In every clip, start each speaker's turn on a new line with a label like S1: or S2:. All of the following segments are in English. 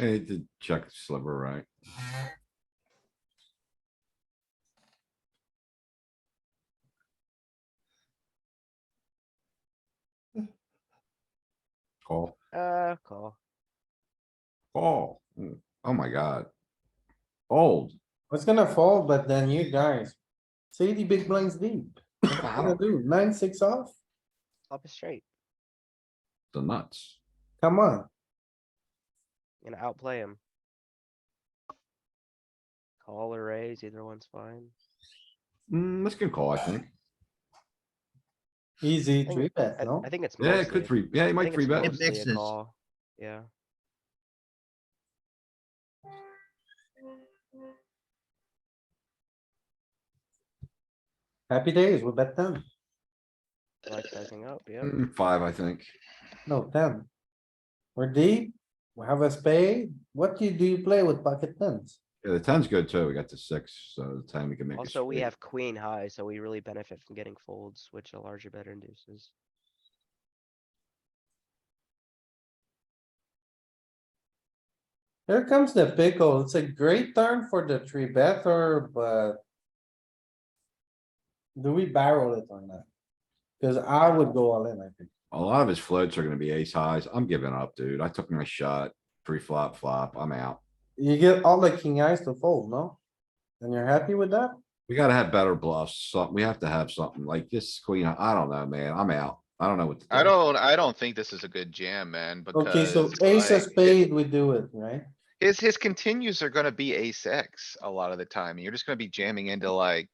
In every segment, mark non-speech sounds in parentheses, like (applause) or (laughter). S1: It did check sliver, right? Call,
S2: Uh, call.
S1: call. Mm, Oh my god. Old.
S3: It's gonna fall, but then you guys, see the big blinds deep.
S1: I
S3: What
S1: don't-
S3: to do? Nine, six off?
S2: Flop is straight.
S1: The nuts.
S3: Come on.
S2: Gonna outplay him. Call or raise, either one's fine.
S1: Mm, let's get a call, I think.
S3: Easy
S2: think-
S3: three bet,
S2: I,
S3: no?
S2: I think it's
S1: Yeah, it could
S2: mostly-
S1: three, yeah, he
S2: I
S1: might
S2: think
S1: three
S2: it's
S1: bet.
S2: mostly a
S4: mixes.
S2: call. Yeah,
S3: Happy days, we bet ten.
S2: I like sizing up, yeah.
S1: Mm, Five, I think.
S3: No, ten. We're deep, we have a spade. What do you, do you play with pocket tens?
S1: Yeah, the ten's good too. We got the six, so the ten we can make. a
S2: Also, we
S1: straight.
S2: have queen high, so we really benefit from getting folds, which a larger bet induces.
S3: Here comes the pickle. It's a great turn for the three better, but. Do we barrel it or not? Cause I would go all in, I think.
S1: A lot of his floats are gonna be ace highs. I'm giving up, dude. I took my shot. Pre-flop, flop, I'm out.
S3: You get all the king eyes to fold, no? And you're happy with that?
S1: We gotta have better bluffs. Something, we have to have something like this queen. I don't know, man. I'm out. I don't know what. to
S4: I
S1: do.
S4: don't, I don't think this is a good jam, man,
S3: Okay,
S4: because.
S3: so ace of
S4: like,
S3: spade, we do it, right?
S4: His, his continues are gonna be ace X a lot of the time. and You're just gonna be jamming into like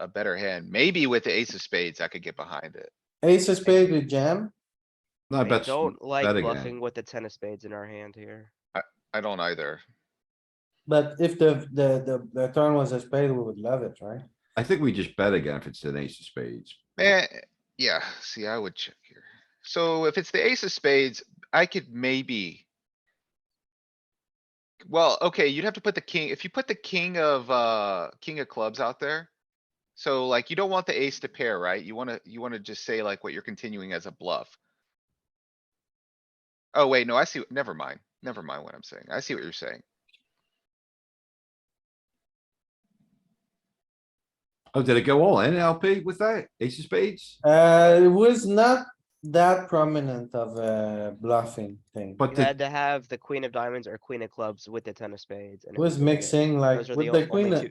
S4: a better hand. Maybe with the ace of spades, I could get behind it.
S3: Ace of spade with jam,
S1: No, I
S2: I
S1: bet, s-
S2: don't like
S1: bet again.
S2: bluffing with the ten of spades in our hand here.
S4: I don't either.
S3: but if the, the, the, the turn was a spade, we would love it, right?
S1: I think we just bet again if it's an ace of spades.
S4: Eh, yeah, see, I would check here. So if it's the ace of spades, I could maybe. Well, okay, you'd have to put the king, if you put the king of, uh, king of clubs out there. So like, you don't want the ace to pair, right? You wanna, you wanna just say like what you're continuing as a bluff. Oh, wait, no, I see, never mind, never mind what I'm saying. I see what you're saying.
S1: Oh, did it go all in LP with that? Ace of spades?
S3: Uh, it was not that prominent of a bluffing thing.
S1: But
S2: You
S1: the-
S2: had to have the queen of diamonds or queen of clubs with the ten of spades. and
S3: It was
S2: really it.
S3: mixing like
S2: Those are
S3: with
S2: o-
S3: the
S2: only
S3: queen. of-
S2: two-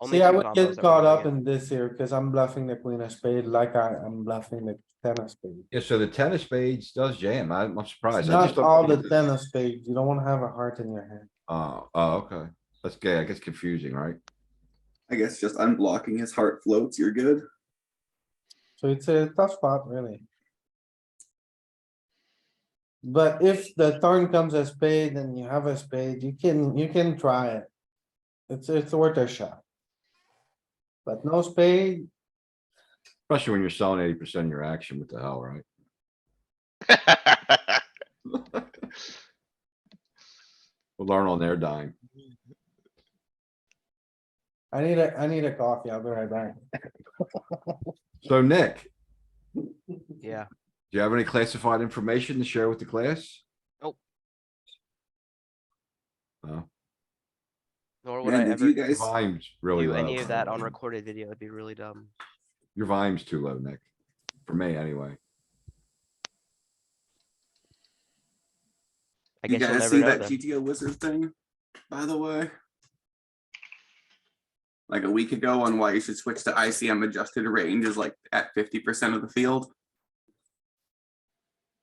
S2: only
S3: See, I
S2: two
S3: would
S2: combos
S3: get
S2: that we're
S3: caught
S2: running
S3: up
S2: out.
S3: in this here, cause I'm bluffing the queen of spade like I, I'm bluffing the ten of spade.
S1: Yeah, so the ten of spades does jam. I'm, I'm surprised.
S3: It's
S1: I just
S3: Not
S1: don't
S3: all the
S1: think it's-
S3: ten of spade. You don't wanna have a heart in your hand.
S1: Oh, oh, okay. That's gay. I guess confusing, right?
S5: I guess just unblocking his heart floats, you're good.
S4: (laughs)
S3: So it's a tough spot, really. But if the turn comes a spade and you have a spade, you can, you can try it. It's, it's worth a shot. But no spade,
S1: Especially when you're selling eighty percent of your action. What the hell, right? We'll learn on their dime.
S3: I need a, I need a coffee. I'll be right back.
S1: So Nick, do
S2: Yeah.
S1: you have any classified information to share with the class?
S2: Nope.
S1: No,
S2: Nor would I
S5: Man, did
S2: ever
S5: you
S2: do
S5: guys,
S1: volume's really
S2: any of
S1: low.
S2: that on recorded video. It'd be really dumb.
S1: Your volume's too low, Nick. For me, anyway.
S2: I
S5: you
S2: guess you'll
S5: guys
S2: never
S5: see
S2: know
S5: that
S2: then.
S5: GTO wizard thing, by the way? Like a week ago on why you should switch to ICM adjusted range is like at fifty percent of the field.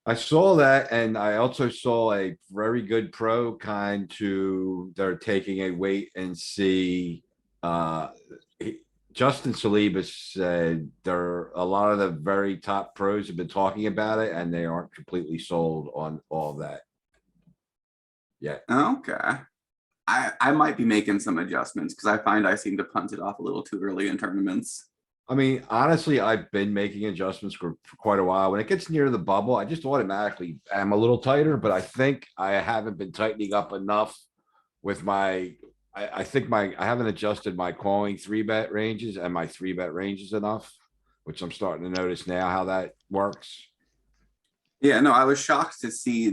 S1: I saw that and I also saw a very good pro kind to, they're taking a wait and see. Uh, he- Justin Saliba said there, a lot of the very top pros have been talking about it and they aren't completely sold on all that.
S5: Okay. I, I might be making some adjustments because I find I seem to punt it off a little too early in tournaments.
S1: I mean, honestly, I've been making adjustments for for quite a while. When it gets near the bubble, I just automatically am a little tighter, but I think I haven't been tightening up enough with my, I, I think my, I haven't adjusted my calling three bet ranges and my three bet ranges enough, which I'm starting to notice now how that works.
S5: Yeah, no, I was shocked to see